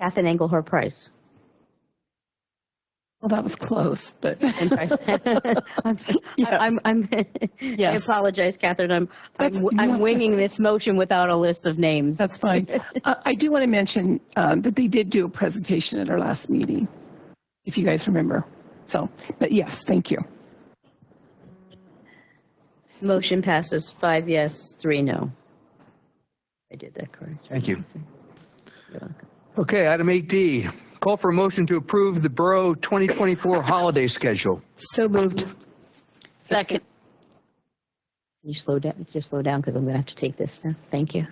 Kathy Engelhard Price. Well, that was close, but And Price. I'm, I'm, I'm, I Yes. apologize, Catherine. I'm, I'm, That's I'm not- winging this motion without a list of names. that's fine. Uh, I do want to mention um, that they did do a presentation at our last meeting, if you guys remember. So, but yes, thank you. Motion passes five yes, three no. I did that correct. Thank you. You're welcome. Okay, item 8D, call for a motion to approve the Borough 2024 holiday schedule. So moved. Second. Can you slow down, just slow down because I'm going to have to take this now. Thank you.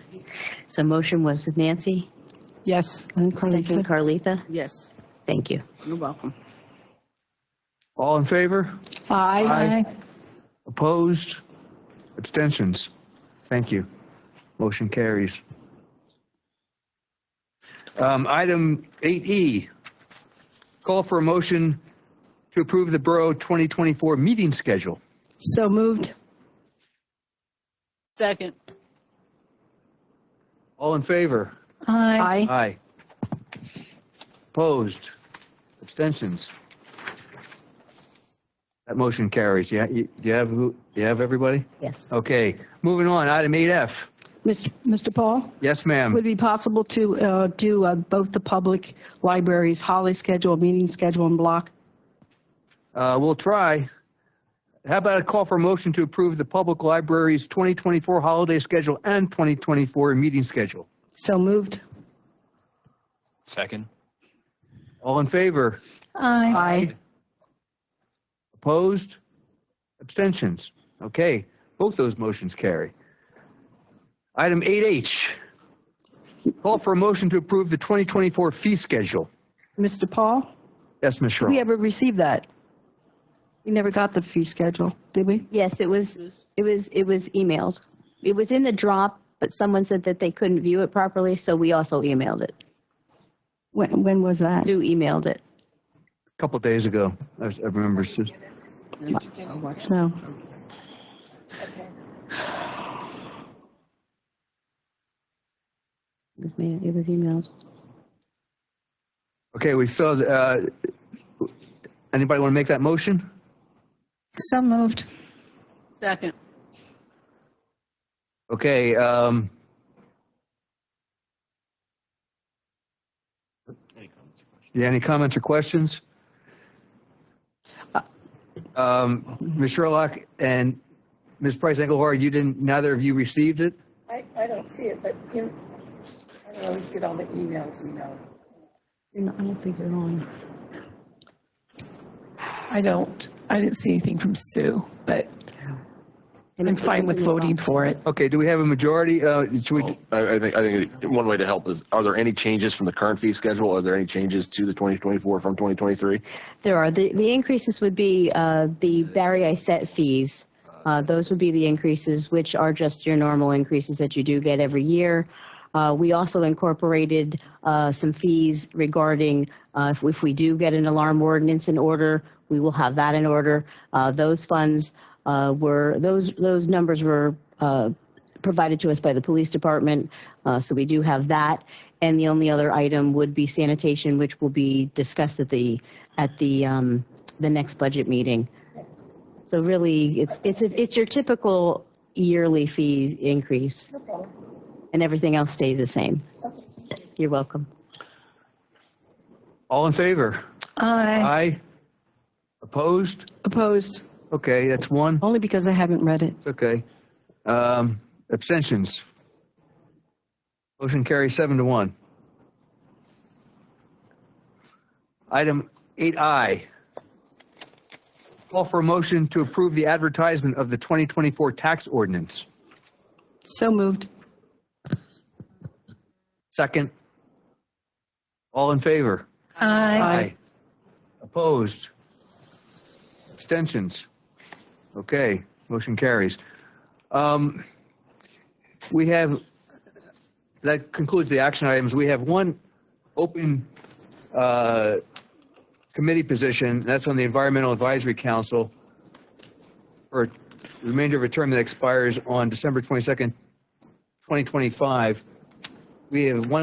So motion was with Nancy, Yes. second Carletha. Yes, Thank you. you're welcome. All in favor? Aye. Opposed? Abstentions? Thank you. Motion carries. Um, Item 8E, call for a motion to approve the Borough 2024 meeting schedule. So moved. Second, All in favor? Aye. Aye. Opposed? Abstentions? That motion carries. Yeah, you, do you have, who- you have everybody? Yes. Okay, moving on, item 8F. Mr. Paul, Yes, would ma'am. it be possible to uh, do uh, both the public libraries' holiday schedule, meeting schedule, and block? Uh, we'll try. How about a call for a motion to approve the public library's 2024 holiday schedule and 2024 meeting schedule? So moved. Second. All in favor? Aye. Opposed? Abstentions? Okay, both those motions carry. Item 8H, call for a motion to approve the 2024 fee schedule. Mr. Paul, Yes, Ms. we Sherrill? ever received that? We never got the fee schedule, did we? Yes, it was, it was, it was emailed. It was in the drop, but someone said that they couldn't view it properly, so we also emailed it. When, when was that? Sue emailed it. A Couple days ago, I was- I remember. s- No. It was ma- it was emailed. Okay, we saw, the, uh, anybody want to make that motion? So moved. second, Okay, um. Yeah, any comments or questions? Um, Ms. Sherlock and Ms. Price Engelhard, you didn't, neither of you received it? I, I don't see it, but you, I don't always get all the emails, you know. I don't, I didn't see anything from Sue, but And I'm it fine was with in the voting drop. for it. Okay, do we have a majority? Uh, should we, I, I think, I think one way to help is, are there any changes from the current fee schedule? Are there any changes to the 2024 from 2023? There are, the, the increases would be uh, the Barry I set fees. Uh, Those would be the increases, which are just your normal increases that you do get every year. Uh, We also incorporated uh, some fees regarding uh, if if we do get an alarm ordinance in order, we will have that in order. Uh, Those funds uh, were, those, those numbers were uh, provided to us by the police department, uh, so we do have that. And the only other item would be sanitation, which will be discussed at the, at the, um, the next budget meeting. So really, it's, it's, it's your typical yearly fee increase. And everything else stays the same. You're welcome. all in favor? Aye. Aye? Opposed? Opposed, Okay, that's one. only because I haven't read it. It's okay. Um, abstentions? Motion carries seven to one. Item 8I. Call for a motion to approve the advertisement of the 2024 tax ordinance. So moved. Second. All in favor? Aye. Opposed? Abstentions? Okay, motion carries. Um, We have, that concludes the action items. We have one open uh, committee position, that's on the Environmental Advisory Council for the remainder of a term that expires on December 22nd, 2025. We have one